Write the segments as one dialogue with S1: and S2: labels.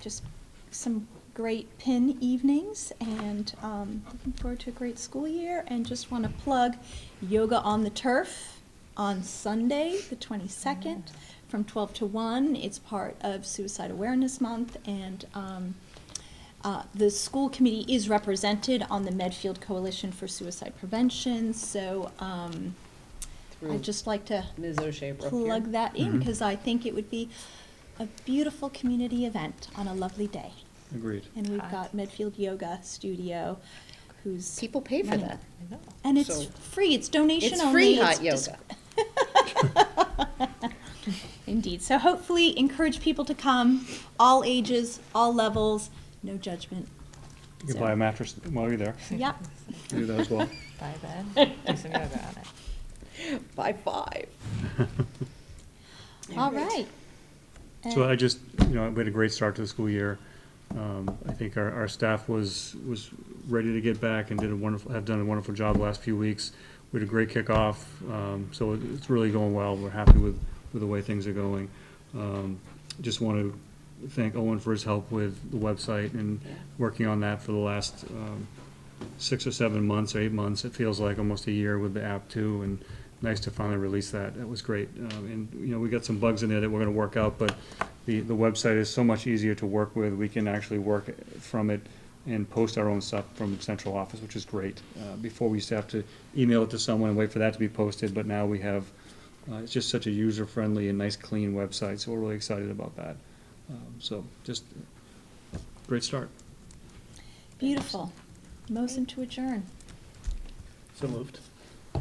S1: just some great pin evenings and um, looking forward to a great school year. And just want to plug Yoga on the Turf on Sunday, the 22nd, from 12 to 1. It's part of Suicide Awareness Month and um, uh, the school committee is represented on the Medfield Coalition for Suicide Prevention, so um,
S2: through
S1: I'd just like to
S2: Ms. O'Shea Brook here.
S1: plug that in
S3: Mhm.
S1: because I think it would be a beautiful community event on a lovely day.
S3: Agreed.
S1: And we've
S4: Hot.
S1: got Medfield Yoga Studio, who's
S2: People pay for
S1: running.
S2: that.
S4: I know.
S1: and it's
S2: So-
S1: free. It's donation
S2: It's
S1: only.
S2: free hot
S1: dis-
S2: yoga.
S1: Indeed. So hopefully, encourage people to come, all ages, all levels, no judgment.
S3: You can
S1: So-
S3: buy a mattress while you're there.
S1: Yep.
S3: Do that as well.
S4: By then, do some yoga on it.
S2: By five.
S1: All right.
S3: So
S1: And-
S3: I just, you know, we had a great start to the school year. Um, I think our, our staff was, was ready to get back and did a wonderful, have done a wonderful job the last few weeks. We had a great kickoff, um, so it- it's really going well. We're happy with, with the way things are going. Um, just want to thank Owen for his help with the website and working on that for the last, um, six or seven months, or eight months, it feels like almost a year with the app too, and nice to finally release that, that was great. Um, and, you know, we got some bugs in there that we're gonna work out, but the, the website is so much easier to work with, we can actually work from it and post our own stuff from central office, which is great. Uh, before we used to have to email it to someone and wait for that to be posted, but now we have, uh, it's just such a user-friendly and nice, clean website, so we're really excited about that. Um, so, just, uh, great start.
S1: Beautiful. Motion to adjourn.
S3: So moved.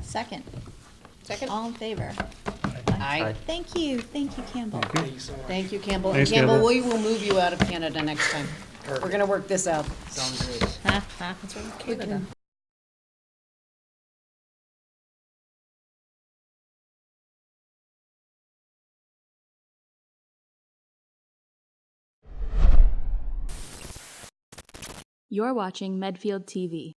S1: Second.
S2: Second?
S1: All in favor?
S2: Aye.
S1: Thank you, thank you, Campbell.
S3: Thank you.
S2: Thank you, Campbell. And
S3: Thanks,
S2: Campbell,
S3: Campbell.
S2: we will move you out of Canada next time. We're gonna work this out.
S5: Sounds good.
S2: That's right,
S4: We can-
S6: You're watching Medfield TV.